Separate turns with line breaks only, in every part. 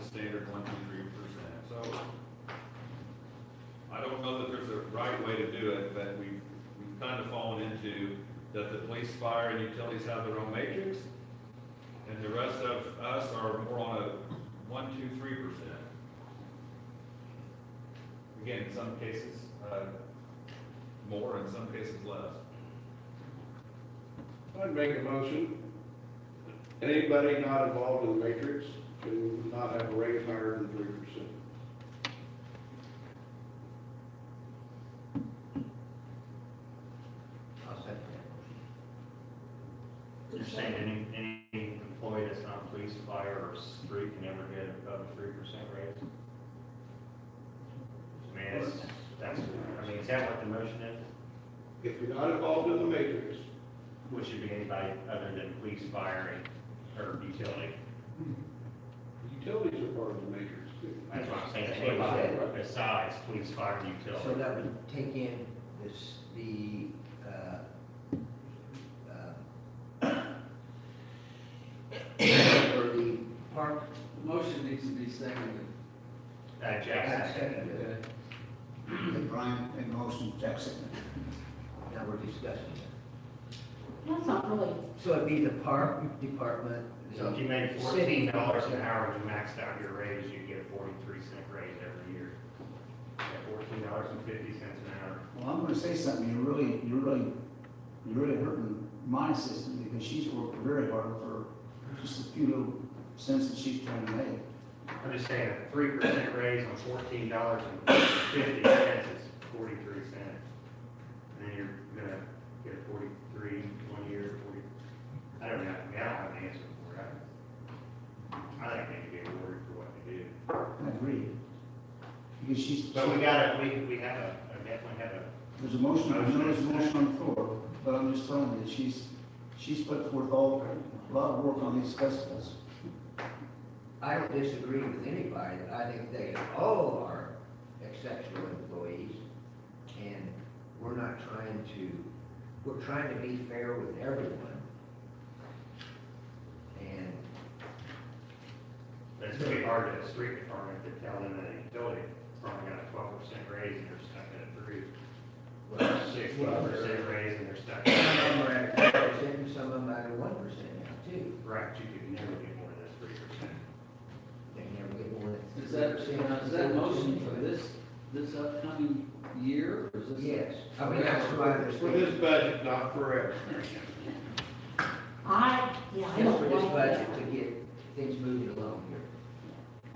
standard one, two, three percent, so. I don't know that there's a right way to do it, but we, we've kind of fallen into that the police, fire, and utilities have their own matrix, and the rest of us are more on a one, two, three percent. Again, in some cases, uh, more, in some cases less.
I'd make a motion. Anybody not involved in the matrix to not have a rate higher than three percent.
I'll second that motion. Just saying, any, any employee that's not police, fire, or street can never get above a three percent raise? I mean, that's, that's, I mean, is that what the motion is?
If you're not involved in the matrix,
Which should be anybody other than police, fire, and- or utility?
utilities are part of the matrix too.
That's what I'm saying, it's anybody besides police, fire, and
So
utility.
that would take in this, the, uh, uh, or the park.
Motion needs to be seconded.
Uh, Jackson, second.
second,
Okay, Brian made a motion, Jack seconded.
Now we're discussing it.
That's not really,
So it'd be the park department.
So if you make
City.
fourteen dollars an hour and you maxed out your raise, you get a forty-three cent raise every year. At fourteen dollars and fifty cents an hour.
Well, I'm gonna say something, you're really, you're really, you're really hurting my system because she's worked very hard for just a few little cents that she's trying to make.
I'm just saying, a three percent raise on fourteen dollars and fifty cents is forty-three cents. And then you're gonna get a forty-three one year, forty, I don't know, I mean, I don't have an answer for it. I- I think they need to be awarded for what they do.
I agree. Because she's,
But we gotta, we, we have a, I definitely have a
there's a motion, I know there's a motion on the floor, but I'm just telling you, she's, she's put forth all, a lot of work on these festivals.
I don't disagree with anybody, I think they all are exceptional employees, and we're not trying to, we're trying to be fair with everyone. And
But it's pretty hard to a street department to tell them that a utility probably got a twelve percent raise and they're stuck at a three,
well,
sixteen
well,
percent raise and they're stuck.
Some of
at-
them are at two percent, and some of them are at one percent now too,
Right, you could never get more than three percent.
they never get more than.
Is that,
3%.
is that motion for this, this upcoming year, or is this?
Yes, I mean, that's why there's.
For this budget, not forever.
I, yeah, I
Just for
don't
this
like that.
budget to get things moving along here.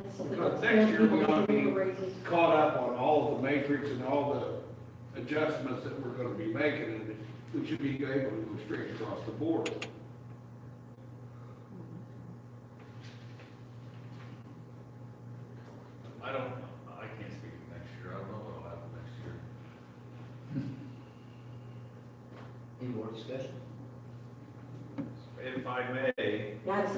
That's what
Because
they-
next year we're
people
gonna
give
be-
you raises.
Caught up on all of the matrix and all the adjustments that we're gonna be making, and we should be able to go straight across the board.
I don't, I can't speak to next year, I don't know what'll happen next year.
Any more discussion?
If I may,
Yeah, it's-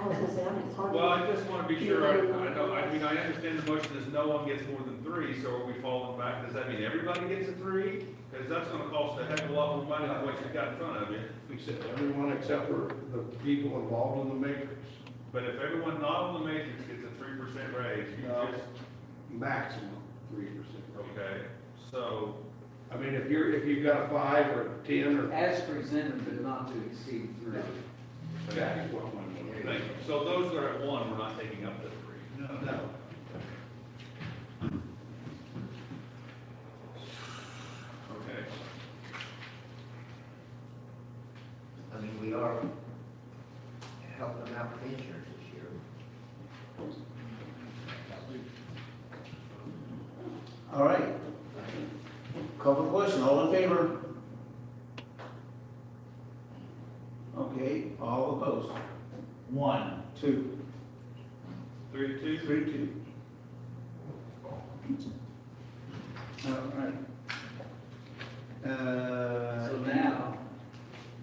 I was gonna say, I mean, it's hard. to-
well, I just want to be sure, I, I know, I mean, I understand the motion is no one gets more than three, so are we falling back? Does that mean everybody gets a three? Because that's gonna cost a heck of a lot more money than what you've got in front of you.
We said everyone except for the people involved in the matrix,
But if everyone not on the matrix gets a three percent raise, you
No.
just,
maximum three percent.
okay, so,
I mean, if you're, if you've got a five or a ten or
As presented, but not to exceed three.
okay.
That's what I'm
Thank
wondering.
you. so those that are at one, we're not taking up the three.
No.
Okay.
I mean, we are helping them out with insurance this year.
All right. Call for the question, all in favor? Okay, all opposed? One. Two.
Three to two?
Three, two. All right. Uh,
So now,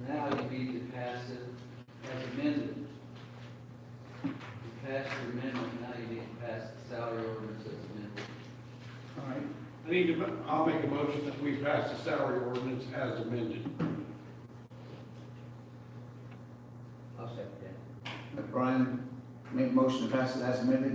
now you need to pass it as amended. You passed your amendment, now you need to pass the salary ordinance as amended.
All right,
I need to, mo- I'll make a motion that we pass the salary ordinance as amended.
I'll second that.
Brian made a motion to pass it as amended,